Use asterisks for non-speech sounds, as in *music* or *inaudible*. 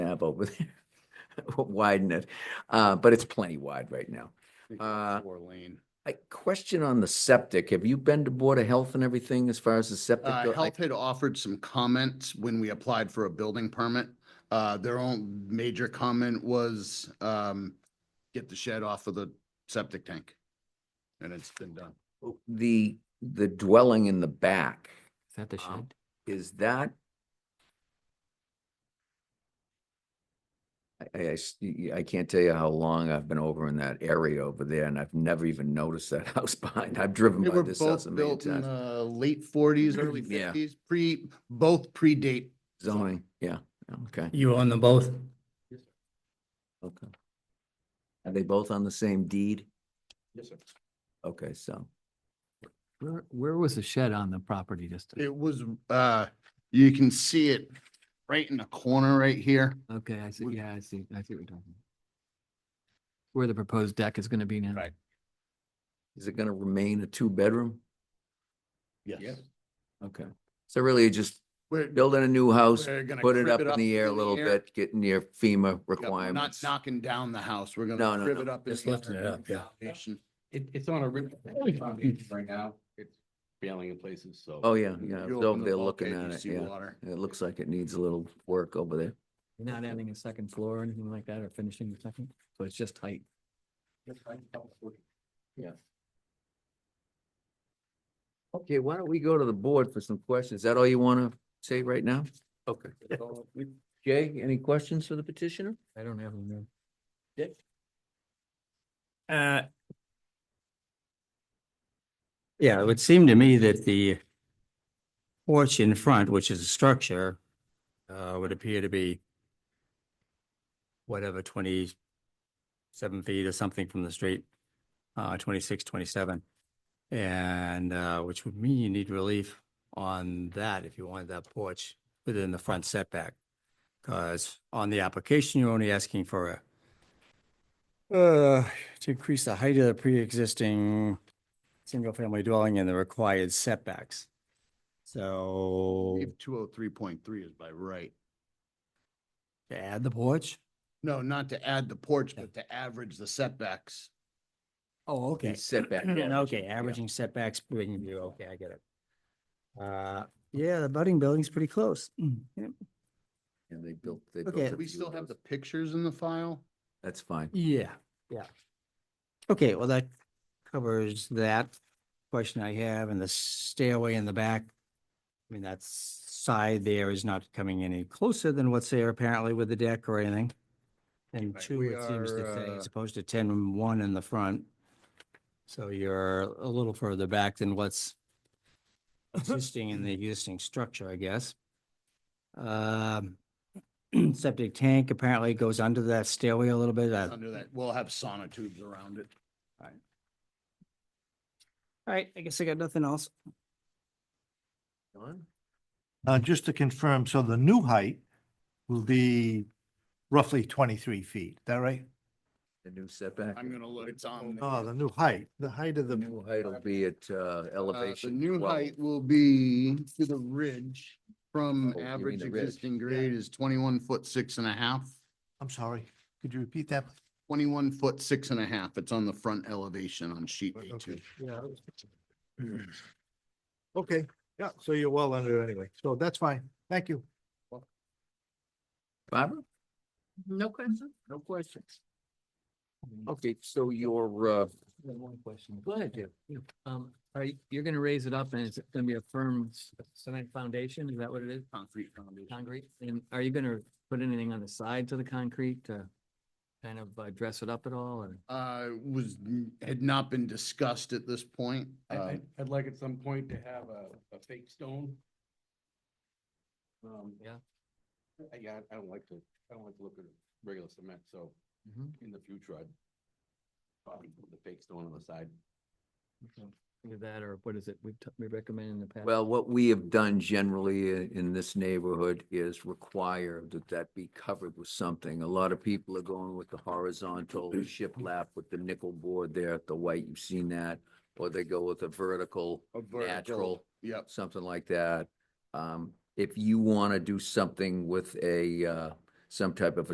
have over there. *laughs* Widen it, uh, but it's plenty wide right now. Uh, Four lane. I question on the septic. Have you been to Board of Health and everything as far as the septic? Uh, go- I- Health had offered some comments when we applied for a building permit. Uh, their own major comment was, um, get the shed off of the septic tank. And it's been done. The, the dwelling in the back, Is that the Um, shed? is that? I- I, I s- y- y- I can't tell you how long I've been over in that area over there and I've never even noticed that *laughs* house behind. I've driven They by were this house a both million built in times. the late *clears throat* forties, early Yeah. fifties, pre, both predate. Zoning, yeah, okay, You own them both? okay. Are they both on the same deed? Yes, sir. Okay, so. Where, where was the shed on the property just? It was, uh, you can see it right in the corner right here. Okay, I see, was- yeah, I see, I see what you're talking. about. Where the proposed deck is gonna be now. Right. Is it gonna remain a two-bedroom? Yes. Okay, so really just We're, building a new house, we're gonna. put it crib up in the air a little bit, get near FEMA Yep, we're Not requirements. knocking down the house. We're No, gonna no, crib no, it up. in just the lifting air it and up, yeah. foundation. It, it's on a rib foundation right now. It's failing in places, so. Oh, yeah, yeah, it's You open over the there looking bulkhead, at you it, see yeah. water. It looks like it needs a little work over there. You're Not adding a second floor or anything like that or finishing the second, so it's just height. Okay, why don't we go to the board for some questions? Is that all you want to say right now? Okay. Jay, any questions for the petitioner? I don't have them there. Uh. Yeah, it would seem to me that the porch in front, which is a structure, uh, would appear to be whatever, twenty-seven feet or something from the street, uh, 26, 27. And, uh, which would mean you need relief on that if you wanted that porch within the front setback. Because on the application, you're only asking for a uh, to increase the height of the pre-existing single-family dwelling and the required setbacks. So Two oh three point three is by right. to add the porch? No, not to add the porch, but to average the setbacks. Oh, The okay. *clears throat* Mm. Setback. Okay, averaging setbacks, bringing you, okay, I get it. Uh, yeah, the budding building's pretty close. Mm, yeah. And they built, they built. Okay. a Do we few still of have the those. pictures in the file? That's fine. Yeah, yeah. Okay, well, that covers that question I have and the stairway in the back. I mean, that side there is not coming any closer than what's there apparently with the deck or anything. And Right, two, we it seems to are, say, uh, as opposed to ten and one in the front. So you're a little further back *laughs* than what's existing in the existing structure, I guess. Um, *clears throat* septic tank apparently goes under that stairway a little bit. uh, Under that, we'll have sonotubes around it. All right, I guess I got nothing else. John? Uh, just to confirm, so the new height will be roughly twenty-three feet, is that right? The new setback? I'm gonna look, it's on. there. Oh, the new height, the height of The the, new height will be at uh, Uh, The elevation. new 12. height will be to the ridge from Oh, you mean average the ridge. existing grade is twenty-one foot six and a half. I'm sorry, could you repeat that? please? Twenty-one foot six and a half. It's on the front elevation on sheet Oh, A two. Okay, yeah. Okay, yeah, so you're well under anyway, so that's fine, thank you. Barbara? No questions. No questions. Okay, so your, uh, One question. go ahead, Jim. Um, are you, you're gonna raise it up and it's gonna be a firm c- cement foundation, is that what it is? Concrete foundation. Concrete, and are you gonna put anything on the sides of the concrete to kind of uh, dress it up at all, or? Uh, was, n- had not been discussed at this point. I, I, Um, I'd like at some point to have a, a fake stone. Um, Yeah. I- Yeah, I don't like to, I don't like to look at regular cement, so Mm-hmm. in the future, I'd probably put the fake stone on the side. Either that, or what is it, we, we recommend in the past? Well, what we have done generally i- in this neighborhood is require that that be covered with something. A lot of people are going with the horizontal shiplap with the nickel board there at the white, you've seen that. Or they go with a vertical, a vertical- natural, Yep. something like that. Um, if you want to do something with a, uh, some type of a